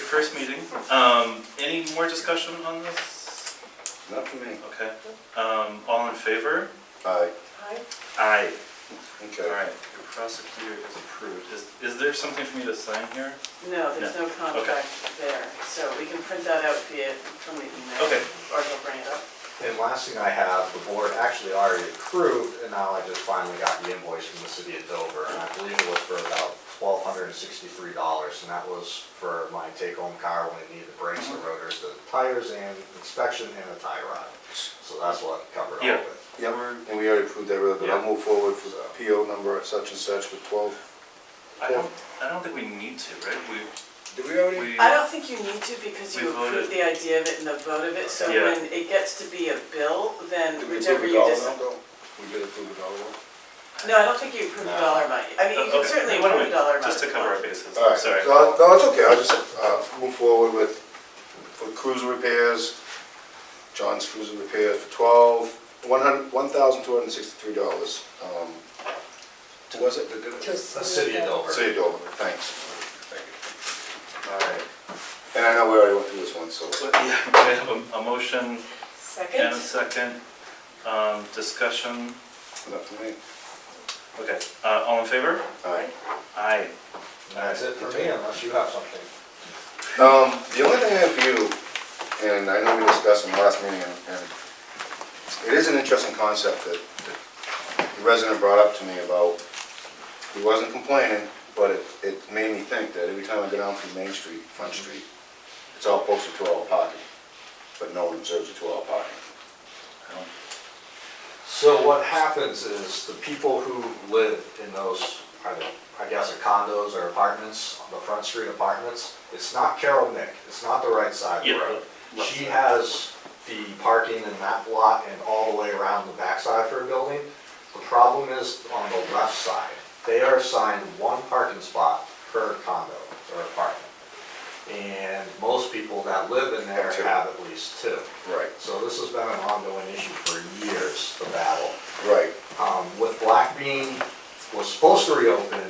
first meeting. Um, any more discussion on this? Not for me. Okay, um, all in favor? Aye. Aye. Aye. All Okay. right, your prosecutor is approved. Is, is there something for me to sign here? No, there's no contract there, so we can print that out via, from the email. Okay. Or he'll bring it up. And last thing I have, the board actually already approved, and now I just finally got the invoice from the city of Dover, and I believe it was for about twelve hundred and sixty-three dollars, and that was for my take-home car when it needed the brakes, the rotors, the tires, and inspection, and a tie rod. So that's what covered all Yeah. of it. Yep, and we already approved that, road, but I'll Yeah. move forward for the PO number such and such for twelve. I don't, I don't think we need to, right? Did we We, already? we, I don't think you need to because We you approve voted. the idea of it and the vote of it, so Yeah. when it gets to be a bill, then did we whichever approve you all of decide. them, though? We did approve it all of No, I don't think you approve a No. dollar amount. I mean, you can Okay, certainly wait a approve a minute, dollar amount. Just to if you cover our want. bases, them? All right, sorry. so- No, it's okay, I'll just, uh, move forward with, for cruiser repairs, John's cruiser repairs for twelve, one hundred, one thousand two hundred and sixty-three dollars. Um, was it, did it? The city of Dover. City of Dover, thanks. Thank All right. you. And I know we already went through this one, so. But, yeah, I have a, a motion and a Second? second, um, discussion. Not for me. Okay, uh, all in favor? All right. Aye. And that's it for me, unless you have something. Um, the only thing I have for you, and I know we discussed in the last meeting, and and it is an interesting concept that that the resident brought up to me about, he wasn't complaining, but it, it made me think that every time I go down through Main Street, Front Street, it's all posted to all parking, but no one observes it to all parking. I don't- So what happens is the people who live in those, either, I guess, condos or apartments, the front street apartments, it's not Carol Nick, it's not the right side of the Yeah, road. left She side. has the parking in that lot and all the way around the backside of her building. The problem is on the left side, they are assigned one parking spot per condo or apartment. And most people that live in there Two. have at least two. Right. So this has been an ongoing issue for years, the battle. Right, Um, With Black Bean was supposed to reopen,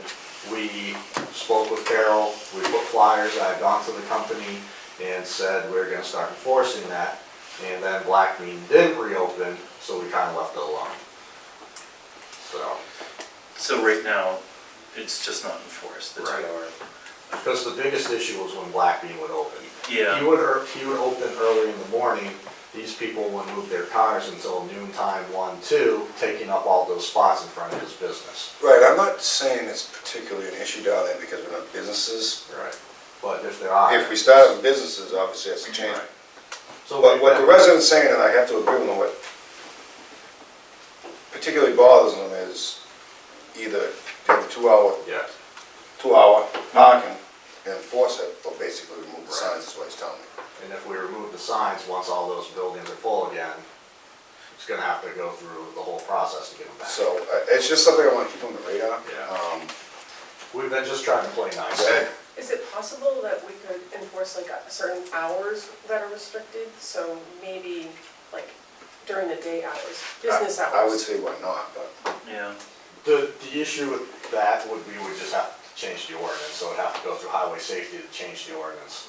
we spoke with Carol, we put flyers, I had gone to the company and said we're gonna start enforcing that. And then Black Bean didn't reopen, so we kinda left it alone. So, So right now, it's just not enforced, the two Right. hour. because the biggest issue was when Black Bean would open. Yeah. He would, er- he would open early in the morning, these people would move their cars until noon time, one, two, taking up all those spots in front of his business. right, I'm not saying it's particularly an issue down there because we're not businesses. Right. But if there are. If we start having businesses, obviously that's a change. Right. So But what the we've- resident's saying, and I have to agree with them, what particularly bothers them is either have a two-hour, Yeah, two-hour parking and enforce it, or basically remove the signs, is what he's telling me. and if we remove the signs, once all those buildings are full again, it's gonna have to go through the whole process to get them back. So uh, it's just something I want to keep on the radar. Yeah. Um, We've been just trying to play nice. that- Is it possible that we could enforce like a certain hours that are restricted? So maybe like during the day hours, business Uh, I- I would hours? say why not, but, Yeah, The, the issue with that would, we would just have to change the ordinance, so it'd have to go through highway safety to change the ordinance.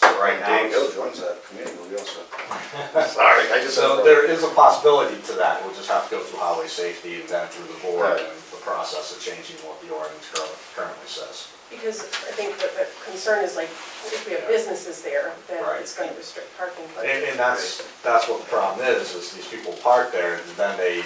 So right and now. Dave it's- Hill joins that committee, we'll be all set. Sorry, I just. So there is a possibility to that, we'll just have to go through highway safety and then through the board Right. and the process of changing what the ordinance curr- currently says. Because I think that the concern is like, if we have businesses there, then Right. it's going to restrict parking. but- And, and that's, that's what the problem is, is these people park there and then they,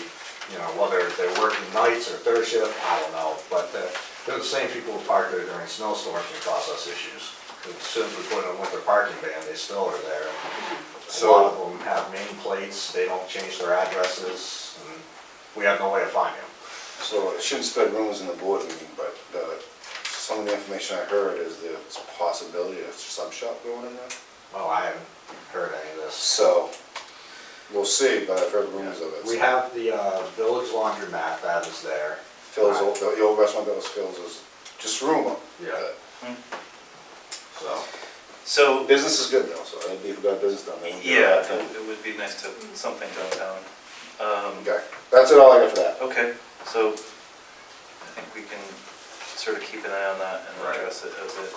you know, whether they're working nights or third shift, I don't know. But they're, they're the same people who park there during snowstorms and cause us issues. As soon as we put in a winter parking ban, they still are there. A So- lot of them have name plates, they don't change their addresses, and we have no way to find them. So it shouldn't spread rumors in the board meeting, but uh, some of the information I heard is there's a possibility of a sub shop going in there. Oh, I haven't heard any of this. So, we'll see, but I've heard rumors of it. We have the uh, village laundromat that is there. Phil's, old- the old restaurant that was Phil's is just rumor. Yeah. So, so, But Business is good though, so it'd be if we got business done. then we'll do yeah, that. it would be nice to put something downtown. Um, Okay, that's it all I got for that. okay, so I think we can sort of keep an eye on that and Right. address it as it